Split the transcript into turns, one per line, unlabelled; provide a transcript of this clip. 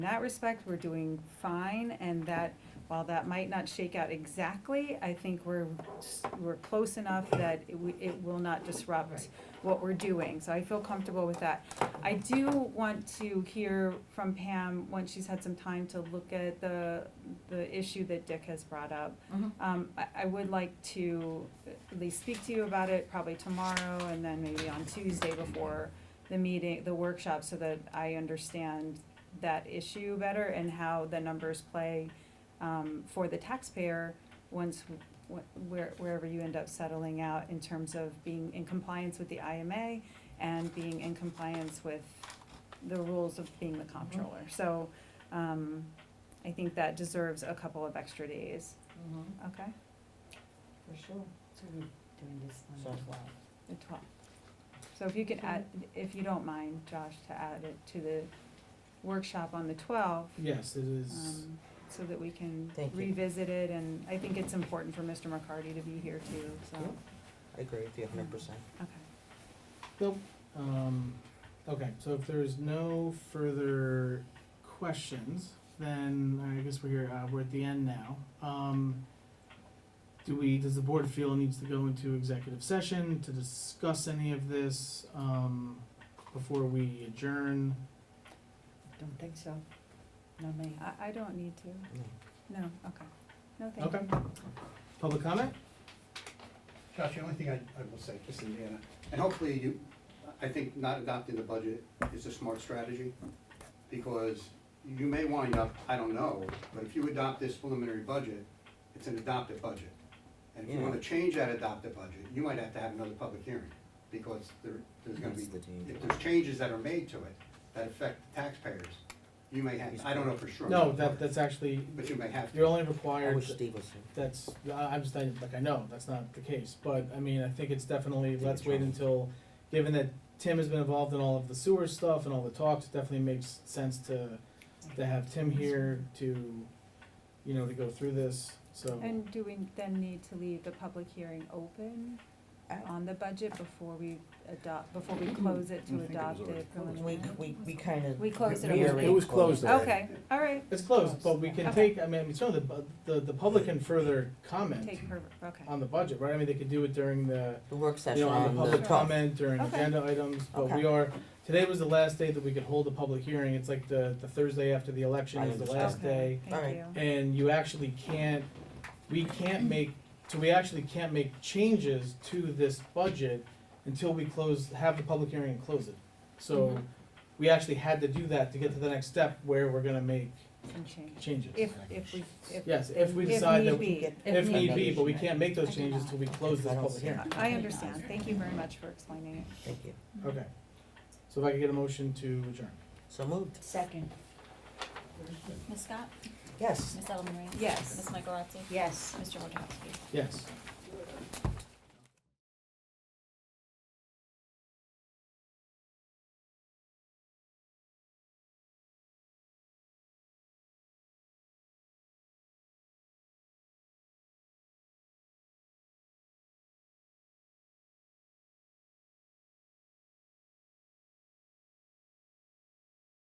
In that respect, we're doing fine, and that, while that might not shake out exactly, I think we're, s- we're close enough that it, we- it will not disrupt
Right.
what we're doing, so I feel comfortable with that. I do want to hear from Pam, once she's had some time to look at the, the issue that Dick has brought up.
Mhm.
Um, I, I would like to at least speak to you about it probably tomorrow and then maybe on Tuesday before the meeting, the workshop, so that I understand that issue better and how the numbers play, um, for the taxpayer once, wh- where, wherever you end up settling out in terms of being in compliance with the IMA and being in compliance with the rules of being the comptroller. So, um, I think that deserves a couple of extra days.
Mhm,
Okay,
For sure. So we're doing this on
So-
the fly.
the twelfth. So if you could add, if you don't mind, Josh, to add it to the workshop on the twelfth,
Yes, it is.
um, so that we can
Thank you.
revisit it, and I think it's important for Mr. McCarty to be here too, so,
Yep. I agree with you a hundred percent.
okay.
Nope. Um, okay, so if there's no further questions, then I guess we're here, uh, we're at the end now. Um, do we, does the board feel it needs to go into executive session to discuss any of this, um, before we adjourn?
Don't think so. Not me.
I, I don't need to,
No.
no, okay, no, thank you.
Okay. Public comment?
Josh, the only thing I, I will say, just in Indiana, and hopefully you, I think not adopting the budget is a smart strategy, because you may wind up, I don't know, but if you adopt this preliminary budget, it's an adopted budget. And if you
Yeah.
wanna change that adopted budget, you might have to have another public hearing, because there, there's gonna be,
That's the change.
if there's changes that are made to it that affect taxpayers, you may have, I don't know for sure.
No, that, that's actually,
But you may have to.
you're only
I
required.
wish Steve was here.
that's, I- I'm just, I- like, I know, that's not the case, but, I mean, I think it's definitely, let's wait until, given that Tim has been involved in all of the sewer stuff and all the talks, it definitely makes sense to, to have Tim here to, you know, to go through this, so.
And do we then need to leave the public hearing open on the budget before we adopt, before we close it to adopt it?
Mm-hmm. We, we, we kind of.
We closed it.
we already
It was closed already.
Okay, all right,
It's closed, but we can
Okay.
take, I mean, it's only the, the, the public can further comment
take her, okay.
on the budget, right? I mean, they could do it during the,
The work
you
session
know, on the public
12th.
comment during
Okay.
agenda items, but
Okay.
we are, today was the last day that we could hold a public hearing, it's like the, the Thursday after the election
I
is the
understand.
last day.
Okay, thank
Alright.
you.
And you actually can't, we can't make, so we actually can't make changes to this budget until we close, have the public hearing and close it. So, we actually had to do that to get to the next step where we're gonna make
Some change.
changes.
If, if we, if,
Yes, if we
If
decide that,
need
we-
be.
if need be, but we
Right.
can't make those
I do
changes till we close this
I don't
public
see
hearing.
it.
I understand, thank you very much for explaining it.
Thank you.
Okay. So if I could get a motion to adjourn.
So moved.
Second.
Ms. Scott?
Yes.
Ms. Ellen Reyes?
Yes.
Ms. Michaelozzi?
Yes.
Mr. Wojciechowski?
Yes.